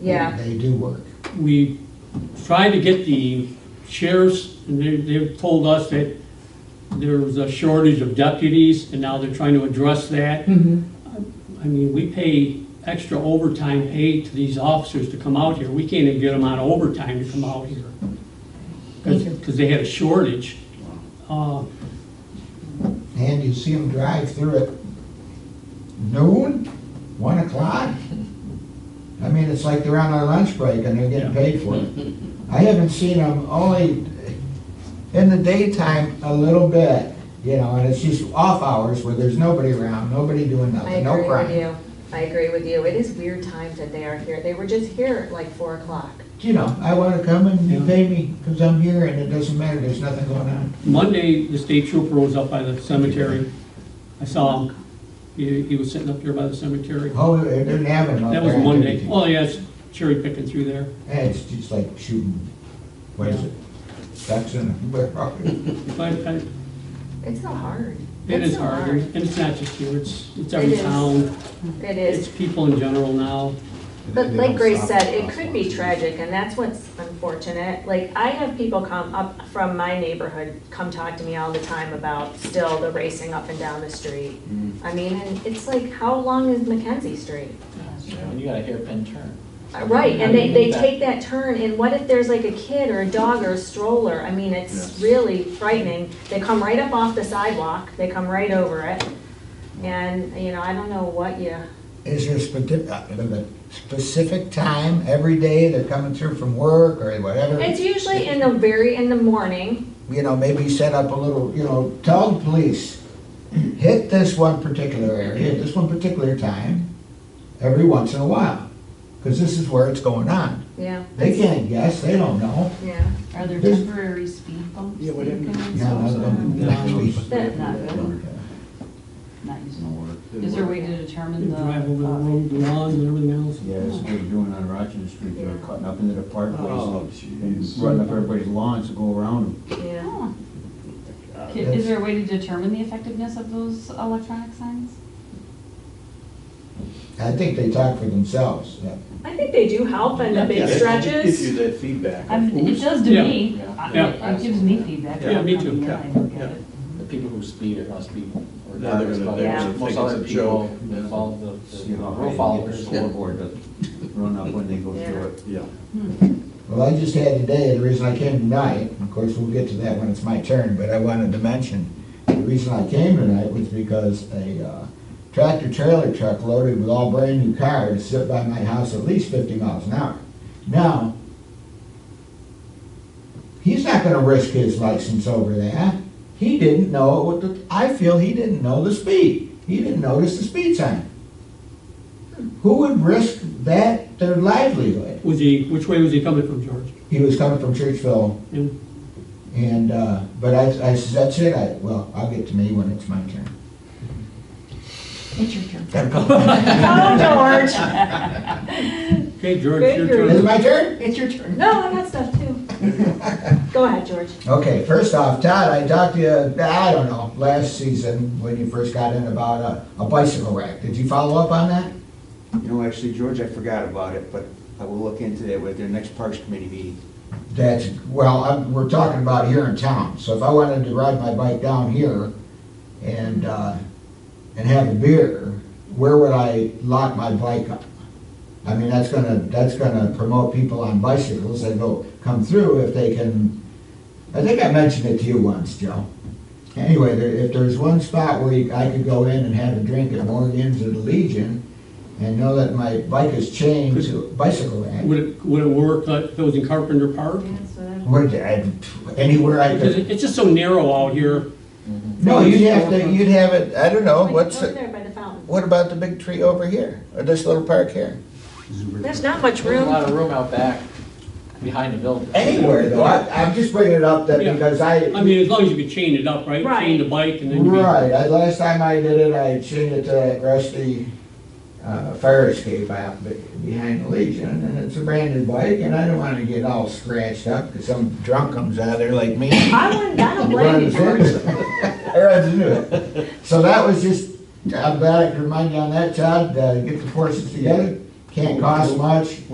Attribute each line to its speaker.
Speaker 1: Yeah.
Speaker 2: They do work.
Speaker 3: we tried to get the sheriffs, and they, they've told us that there was a shortage of deputies, and now they're trying to address that. I mean, we pay extra overtime pay to these officers to come out here, we can't even get them on overtime to come out here. Because, they had a shortage. Uh,
Speaker 2: And you see them drive through at noon, one o'clock. I mean, it's like they're on their lunch break and they're getting
Speaker 3: Yeah.
Speaker 2: paid for it. I haven't seen them only in the daytime a little bit, you know, and it's just off hours where there's nobody around, nobody doing
Speaker 1: I
Speaker 2: nothing, no
Speaker 1: agree with
Speaker 2: crime.
Speaker 1: you. I agree with you. It is weird times that they are here. They were just here at like four o'clock.
Speaker 2: You know, I wanna come and you
Speaker 3: Yeah.
Speaker 2: pay me, cause I'm here and it doesn't matter, there's nothing going on.
Speaker 3: Monday, the state trooper was up by the cemetery, I saw him, he, he was sitting up there by the cemetery.
Speaker 2: Oh, it didn't happen out
Speaker 3: That was
Speaker 2: there.
Speaker 3: Monday, well, yeah, it's cherry picking through there.
Speaker 2: Yeah, it's just like shooting, what is it? Ducks in a.
Speaker 3: But I,
Speaker 1: It's so hard.
Speaker 3: It
Speaker 1: It's
Speaker 3: is
Speaker 1: so
Speaker 3: hard, and it's not just you, it's, it's every
Speaker 1: It is.
Speaker 3: town,
Speaker 1: It is.
Speaker 3: it's people in general now.
Speaker 1: But like Grace said, it could be tragic and that's what's unfortunate. Like I have people come up from my neighborhood, come talk to me all the time about still the racing up and down the street. I mean, and it's like, how long is Mackenzie Street? Uh,
Speaker 4: You got a hairpin turn.
Speaker 1: Right, and they, they
Speaker 4: Yeah.
Speaker 1: take that turn, and what if there's like a kid or a dog or a stroller? I mean, it's really frightening. They come right up off the sidewalk, they come right over it, and, you know, I don't know what you,
Speaker 2: Is there a uh, specific, specific time, every day they're coming through from work or whatever?
Speaker 1: it's usually in the very, in the morning,
Speaker 2: You know, maybe set up a little, you know, tell the police, hit this one particular area, this one particular time, every once in a while. Cause this is where it's going on.
Speaker 1: yeah,
Speaker 2: They can't guess, they don't know.
Speaker 1: yeah.
Speaker 5: Are there
Speaker 2: There's-
Speaker 5: temporary speed bumps?
Speaker 6: Yeah,
Speaker 5: that
Speaker 6: whatever.
Speaker 5: you can
Speaker 2: Yeah,
Speaker 5: install?
Speaker 2: that's something that we-
Speaker 1: That-
Speaker 5: Not good, not using it. Is there a way to determine
Speaker 3: You
Speaker 5: the?
Speaker 3: drive over the
Speaker 5: uh,
Speaker 3: road, the lawns and everything else.
Speaker 7: Yeah, that's what they're doing on Rochester Street, they're cutting up into the
Speaker 6: Oh,
Speaker 7: parkways and
Speaker 6: jeez.
Speaker 7: running up everybody's lawns to go around them.
Speaker 1: Yeah,
Speaker 5: oh. Ca- Is there a way to determine the effectiveness of those electronic signs?
Speaker 2: I think they talk for themselves, yeah.
Speaker 1: I think they do help in the
Speaker 6: Yeah,
Speaker 1: big
Speaker 6: it Gives you
Speaker 1: stretches.
Speaker 6: that feedback.
Speaker 5: I mean, it does to
Speaker 3: Yeah.
Speaker 5: me.
Speaker 4: Yeah.
Speaker 5: I-
Speaker 3: Yeah.
Speaker 5: It gives me feedback.
Speaker 3: Yeah, me too.
Speaker 5: Yeah, I look at it.
Speaker 4: The people who speed are gonna speed
Speaker 6: No, they're
Speaker 4: regardless,
Speaker 6: gonna-
Speaker 4: but
Speaker 6: they're
Speaker 1: gonna
Speaker 4: most
Speaker 6: think
Speaker 4: other
Speaker 6: it's a joke.
Speaker 4: people involved, the,
Speaker 7: See
Speaker 4: the
Speaker 7: how
Speaker 4: rule
Speaker 7: high they get the
Speaker 4: followers.
Speaker 7: scoreboard to run up when they go
Speaker 1: Yeah.
Speaker 7: through it.
Speaker 6: Yeah.
Speaker 2: Well, I just had today, the reason I came tonight, of course, we'll get to that when it's my turn, but I wanted to mention, the reason I came tonight was because a uh, tractor trailer truck loaded with all brand-new cars sit by my house at least fifty miles an hour. Now, he's not gonna risk his license over that. He didn't know, what the- I feel he didn't know the speed. He didn't notice the speed sign. Who would risk that, their livelihood?
Speaker 3: Was he, which way was he coming from, George?
Speaker 2: he was coming from Churchville,
Speaker 3: Yeah.
Speaker 2: and, uh, but I, I said, that's it, I, well, I'll get to me when it's my turn.
Speaker 5: It's your turn.
Speaker 1: Oh, George,
Speaker 3: Okay, George,
Speaker 1: Good,
Speaker 3: your
Speaker 2: Is it
Speaker 3: turn.
Speaker 2: my turn?
Speaker 5: It's your turn.
Speaker 1: no, I got stuff too. Go ahead, George.
Speaker 2: Okay, first off, Todd, I talked to you, I don't know, last season, when you first got in about a, a bicycle wreck, did you follow up on that?
Speaker 7: You know, actually, George, I forgot about it, but I will look into that with their next Parks Committee meeting.
Speaker 2: That's, well, I'm, we're talking about here in town, so if I wanted to ride my bike down here and, uh, and have a beer, where would I lock my bike up? I mean, that's gonna, that's gonna promote people on bicycles that go, come through if they can, I think I mentioned it to you once, Joe. Anyway, there, if there's one spot where you- I could go in and have a drink at Morgan's or the Legion and know that my bike is chained to a bicycle rack.
Speaker 3: Would it, would it work uh, if it was in Carpenter Park?
Speaker 2: Where, I- anywhere I
Speaker 3: Because
Speaker 2: could.
Speaker 3: it- it's just so narrow out here.
Speaker 2: No, you'd have to, you'd have it, I don't know, Oh, what's,
Speaker 1: Over
Speaker 2: it-
Speaker 1: there by the fountain.
Speaker 2: what about the big tree over here, or this little park here?
Speaker 1: There's not much
Speaker 4: There's a
Speaker 1: room.
Speaker 4: lot of room out back, behind the building.
Speaker 2: Anywhere though, I, I'm just bringing it up that
Speaker 3: Yeah.
Speaker 2: because
Speaker 3: I
Speaker 2: I,
Speaker 3: mean, as long as you could chain it up, right?
Speaker 1: Right.
Speaker 3: Chain the bike and then you'd be.
Speaker 2: right, I, last time I did it, I chained it to that rusty, uh, fire escape out be- behind the Legion, and it's a branded bike, and I don't wanna get all scratched up, cause some drunk comes out of there like me.
Speaker 1: I wouldn't, I don't blame you,
Speaker 2: runs
Speaker 1: George.
Speaker 2: into it. Runs into it. So that was just, I'm glad I could remind you on that, Todd, uh, get the forces together, can't cost much,